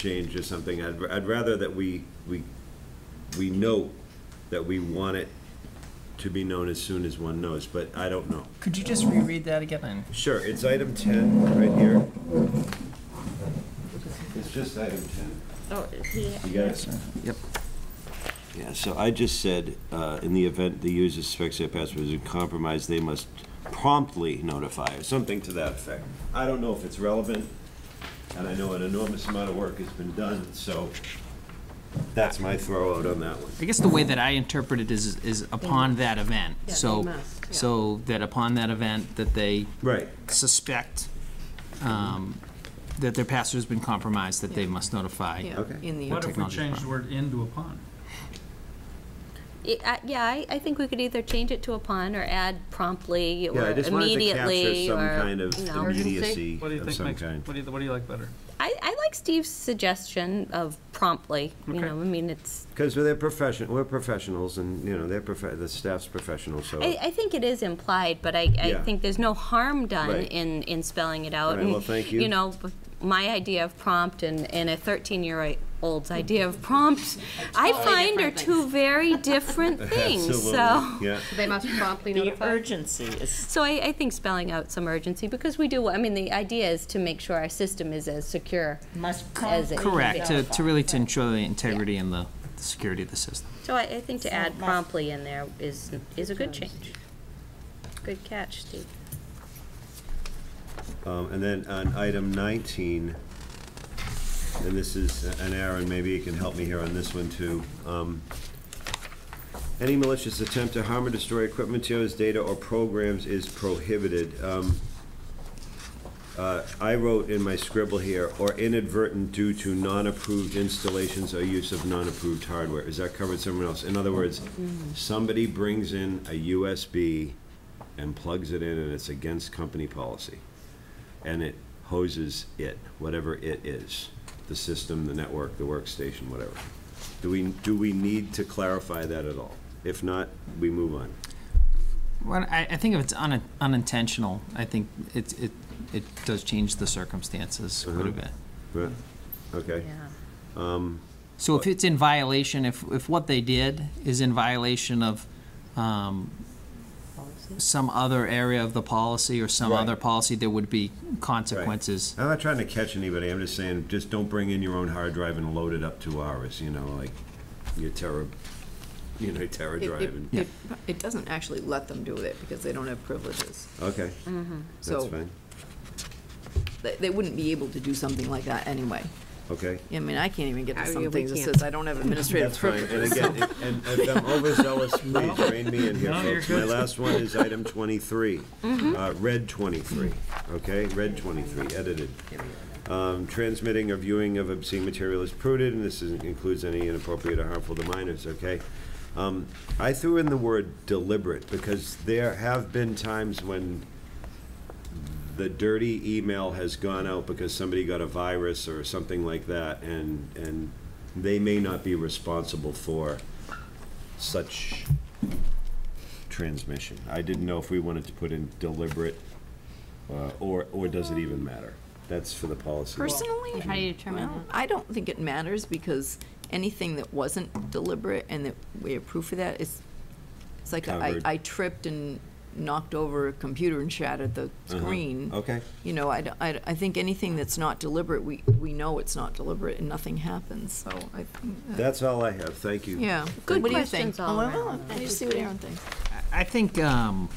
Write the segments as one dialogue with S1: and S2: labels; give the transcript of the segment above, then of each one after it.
S1: change or something, I'd, I'd rather that we, we, we know that we want it to be known as soon as one knows, but I don't know.
S2: Could you just reread that again?
S1: Sure, it's item ten, right here. It's just item ten.
S3: Oh, he,
S1: You got it?
S2: Yep.
S1: Yeah, so I just said, uh, in the event the user suspects their password is compromised, they must promptly notify, or something to that effect. I don't know if it's relevant, and I know an enormous amount of work has been done, so that's my throw out on that one.
S2: I guess the way that I interpret it is, is upon that event.
S3: Yeah,
S2: So,
S3: they must, yeah.
S2: so that upon that event, that they
S1: Right.
S2: suspect um, that their pastor's been compromised, that they must notify.
S3: yeah,
S1: Okay.
S3: in the.
S4: What if we
S2: technology
S4: change
S2: part.
S4: the word in to upon?
S3: Yeah, I- Yeah, I, I think we could either change it to upon or add promptly
S1: Yeah,
S3: or
S1: I just wanted to capture
S3: immediately
S1: some
S3: or,
S1: kind of
S3: you know.
S1: immediacy
S4: What do you
S1: of
S4: think
S1: some
S4: makes,
S1: kind.
S4: what do you, what do you like better?
S3: I, I like Steve's suggestion of promptly, you
S4: Okay.
S3: know, I mean, it's,
S1: Because they're profession, we're professionals, and, you know, they're prof, the staff's professional, so.
S3: I, I think it is implied, but I, I
S1: Yeah.
S3: think there's no harm done
S1: Right.
S3: in, in spelling it out.
S1: Right,
S3: And,
S1: well, thank you.
S3: You know, b- my idea of prompt and, and a thirteen-year-old's idea of prompt, I find are
S5: different
S3: two very different things,
S1: Absolutely,
S3: so.
S1: Yeah.
S5: They must promptly
S6: The
S5: notify.
S6: urgency is,
S3: So I, I think spelling out some urgency, because we do, I mean, the idea is to make sure our system is as secure
S6: must
S3: as it can be.
S2: Correct, to, to really to ensure the integrity and the the security of the system.
S3: So I, I think to add
S6: must-
S3: promptly in there is, is a good change. Good catch, Steve.
S1: Um, And then on item 19, and this is, and Aaron, maybe you can help me here on this one too. Um, Any malicious attempt to harm or destroy equipment, materials, data, or programs is prohibited. Um, uh, I wrote in my scribble here, or inadvertent due to non-approved installations or use of non-approved hardware. Is that covered somewhere else? In other words, somebody brings in a USB and plugs it in, and it's against company policy and it hoses it, whatever it is, the system, the network, the workstation, whatever. Do we, do we need to clarify that at all? If not, we move on.
S2: Well, I, I think if it's unin- unintentional, I think it, it, it does change the circumstances quite a
S1: Mhm.
S2: bit.
S1: Right? Okay,
S2: So if it's in violation, if, if what they did is in violation of um, some other area of the policy or some
S1: Right.
S2: other policy, there would be consequences.
S1: I'm not trying to catch anybody, I'm just saying, just don't bring in your own hard drive and load it up to ours, you know, like your Terra, you know, Terra
S5: It-
S1: drive
S5: it-
S1: and,
S5: it- It doesn't actually let them do it because they don't have privileges.
S1: okay, that's
S5: Mm-hmm. So
S1: fine,
S5: they, they wouldn't be able to do something like that anyway.
S1: okay.
S5: I mean, I can't even get
S3: I-
S5: to
S3: we
S5: some things that
S3: can't.
S5: says I don't have administrative
S1: That's fine,
S5: privileges.
S1: and again, if- and if I'm overzealous, please rein me in here,
S4: No, you're
S1: folks. My
S4: good. Mm-hmm.
S1: last one is item twenty-three, uh, red twenty-three, okay, red twenty-three, edited. Um, transmitting or viewing of obscene material is prudent, and this is- includes any inappropriate or harmful to minors, okay? Um, I threw in the word deliberate, because there have been times when the dirty email has gone out because somebody got a virus or something like that, and, and they may not be responsible for such transmission. I didn't know if we wanted to put in deliberate, uh, or, or does it even matter? That's for the policy.
S5: Personally,
S6: How do you determine
S5: well, I don't think it matters because anything that wasn't deliberate and that we have proof of that is, it's like I,
S1: Covered.
S5: I tripped and knocked over a computer and shattered the screen.
S1: Uh-huh. Okay,
S5: You know, I, d- I d- I think anything that's not deliberate, we, we know it's not deliberate and nothing happens, so I think that-
S1: that's all I have, thank you.
S5: Yeah.
S3: Good
S5: What do you think?
S3: questions all
S5: Well, well,
S3: around.
S5: Let me see what Aaron thinks.
S2: I think, um,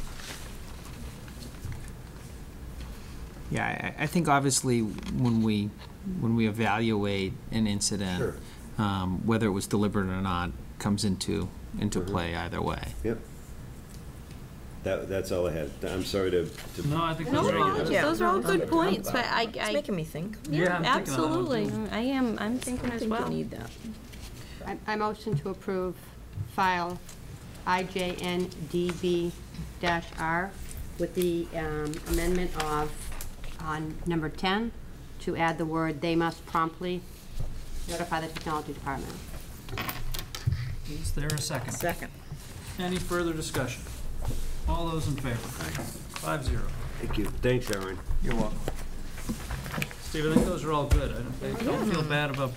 S2: yeah, I, I think obviously when we, when we evaluate an incident, um, whether it was deliberate or not, comes into, into play either way.
S1: Yep. That, that's all I had. I'm sorry to, to.
S4: No, I think
S3: No,
S4: that's very
S3: no,
S4: good.
S5: Yeah.
S3: those are all good points, but I,
S5: It's
S3: I,
S5: making me think.
S4: Yeah,
S3: yeah,
S4: I'm thinking on that one,
S3: absolutely,
S4: too.
S3: I am, I'm thinking
S5: I
S3: as
S5: think
S3: well.
S5: you need that.
S7: I- I motion to approve file IJNDB-R with the um, amendment of, on number 10, to add the word, "They must promptly notify the technology department."
S4: Is there a second?
S6: Second.
S4: Any further discussion? All those in favor? Five zero.
S1: Thank you. Thanks, Aaron.
S4: You're welcome. Stephen, I think those are all good. I don't, I don't feel bad about